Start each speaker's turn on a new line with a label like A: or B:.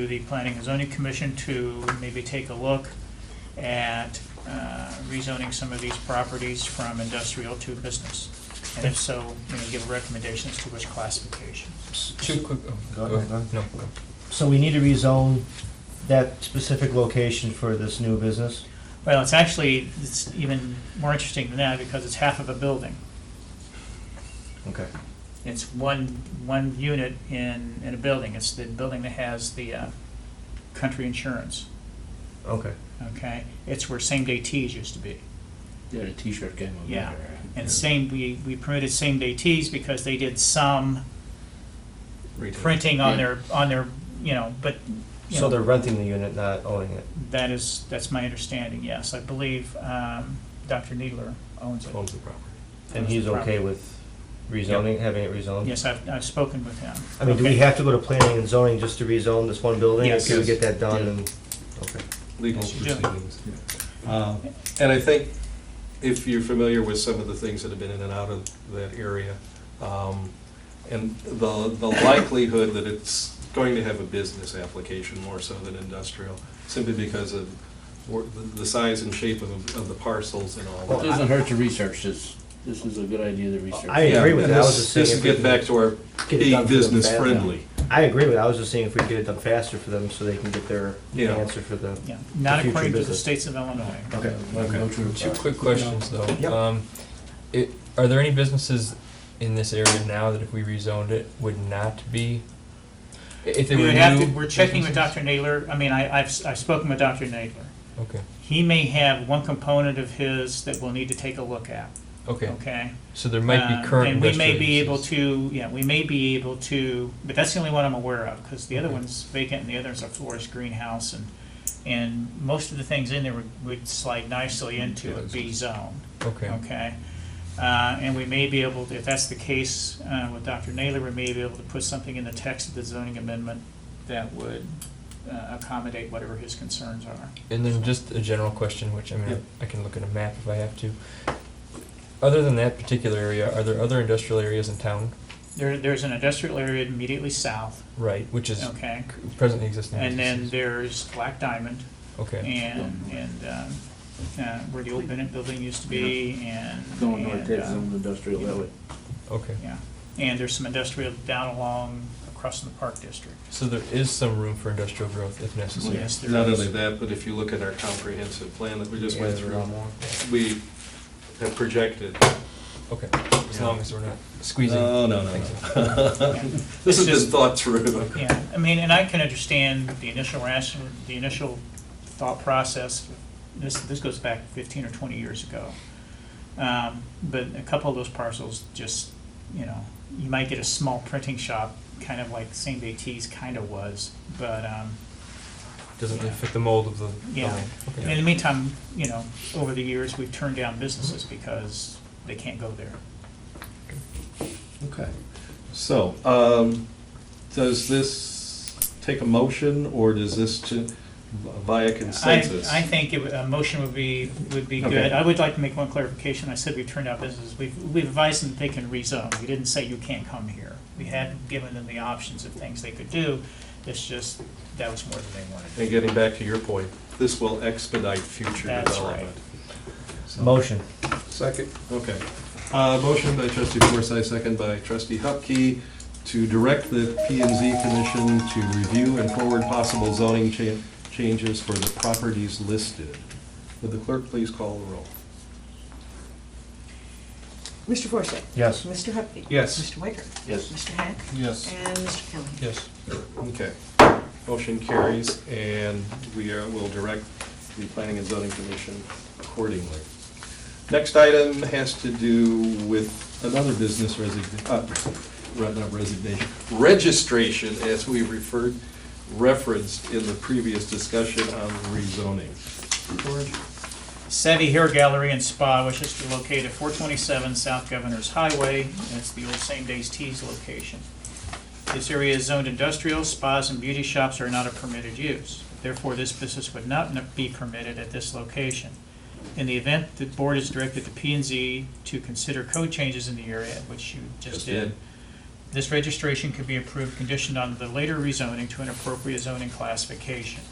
A: to the Planning and Zoning Commission to maybe take a look at uh, rezoning some of these properties from industrial to business. And if so, you know, give recommendations to which classification.
B: Two quick, oh,
C: Go
B: go
C: ahead,
B: ahead. No, go.
C: So we need to rezone that specific location for this new business?
A: Well, it's actually, it's even more interesting than that because it's half of a building.
C: Okay.
A: It's one, one unit in, in a building. It's the building that has the uh, country insurance,
C: Okay.
A: okay? It's where same-day teas used to be.
D: Yeah, the t-shirt game over
A: Yeah.
D: there.
A: And same, we, we permitted same-day teas because they did some printing on their, on their, you know, but, you
C: So
A: know,
C: they're renting the unit, not owning it,
A: that is, that's my understanding, yes. I believe um, Dr. Needler owns it.
B: owns the property.
C: and he's okay with rezoning, having it rezoned?
A: Yes, I've, I've spoken with him.
C: I mean, do we
A: Okay.
C: have to go to planning and zoning just to rezone this one building?
A: Yes.
C: Can we get that done and, okay.
E: legal
A: Yes, you do.
E: proceedings.
A: Um,
E: Uh, And I think if you're familiar with some of the things that have been in and out of that area, um, and the, the likelihood that it's going to have a business application more so than industrial, simply because of wor- the- the size and shape of, of the parcels and all
D: It
E: that.
D: doesn't hurt to research this. This is a good idea to research.
C: I agree with
E: Yeah, and
C: that. I was
E: this-
C: just saying
E: This
C: if
E: is
C: we
E: getting back to our
C: Get it done
E: being
C: for them
E: business
C: fast.
E: friendly.
C: I agree with, it. I was just saying if we could get it done faster for them so they can get their
E: Yeah.
C: answer for the,
A: Yeah, not
C: future
A: according to the
C: business.
A: states of Illinois.
C: okay.
D: No true.
B: Two quick questions though.
C: Yep.
B: Um, it, are there any businesses in this area now that if we rezoned it would not be? i- If they
A: We
B: were
A: would have to,
B: new
A: we're checking with
B: businesses?
A: Dr. Nadler, I mean, I, I've, s- I've spoken with Dr. Nadler.
B: Okay,
A: He may have one component of his that we'll need to take a look at,
B: okay.
A: okay?
B: So there might
A: Um,
B: be current
A: And we may
B: industrial
A: be able
B: uses.
A: to, yeah, we may be able to, but that's the only one I'm aware of, because the other
B: Okay.
A: one's vacant, and the other's a florist greenhouse, and, and most of the things in there would- would slide
B: Mm-hmm.
A: nicely into a
E: Yes.
A: B zone.
B: Okay,
A: Okay. Uh, And we may be able, to- if that's the case uh, with Dr. Naylor, we may be able to put something in the text of the zoning amendment that would uh, accommodate whatever his concerns are.
B: and then just a general question, which I mean,
E: Yep.
B: I can look at a map if I have to. Other than that particular area, are there other industrial areas in town?
A: There, there's an industrial area immediately south,
B: Right, which is
A: okay?
B: c- presently existing.
A: And then
B: businesses.
A: there's Black Diamond
B: Okay,
A: and, and um, uh, where the old Bennett building used to be and.
D: Going north,
A: and,
D: that's
A: uh,
D: some industrial that way.
B: okay.
A: Yeah. And there's some industrial down along across from the Park District.
B: So there is some room for industrial growth if necessary.
A: Yes, there
E: Not
A: is.
E: only that, but if you look at our comprehensive plan that we just
C: Yeah,
E: went
C: there's a
E: through,
C: lot more.
E: we have projected
B: Okay, as long as we're not squeezing.
A: Uh,
E: No, no, no,
B: things.
E: no. This has been thought through.
A: Yeah, I mean, and I can understand the initial ration, the initial thought process, this, this goes back fifteen or twenty years ago. Um, But a couple of those parcels just, you know, you might get a small printing shop, kind of like same day teas kind of was, but, um,
B: Doesn't really fit the mold of the.
A: Yeah.
B: building.
A: in the meantime, you know, over the years, we've turned down businesses because they can't go there.
E: Okay. So, um, does this take a motion, or does this ju- via consensus?
A: I, I think it would- a motion would be, would be
E: Okay.
A: good. I would like to make one clarification. I said we've turned out businesses. We've, we've advised them that they can rezone. We didn't say you can't come here. We had given them the options of things they could do. It's just, that was more than they wanted.
E: And getting back to your point, this will expedite future
A: That's right.
E: development. So-
C: Motion.
E: Second. Okay. Uh, Motion by trustee Forsythe, second by trustee Hupkey, to direct the P and Z Commission to review and forward possible zoning cha- changes for the properties listed. Would the clerk please call the roll?
F: Mr. Forsyth?
C: Yes.
F: Mr. Hupkey?
E: Yes.
F: Mr. Wicker?
D: Yes.
F: Mr. Hack?
E: Yes.
F: And Mr. Kelly?
B: Yes.
E: Okay. Motion carries, and we are- will direct the Planning and Zoning Commission accordingly. Next item has to do with another business resignation, not resignation, registration, as we referred, referenced in the previous discussion on rezoning. George?
A: Savvy Hair Gallery and Spa wishes to locate at four twenty-seven South Governor's Highway, and it's the old Same Days Teas location. This area is zoned industrial, spas and beauty shops are not a permitted use. Therefore, this business would not n- be permitted at this location. In the event, the board is directed to P and Z to consider code changes in the area, which you just
E: Just
A: did.
E: did.
A: This registration could be approved conditioned on the later rezoning to an appropriate zoning classification.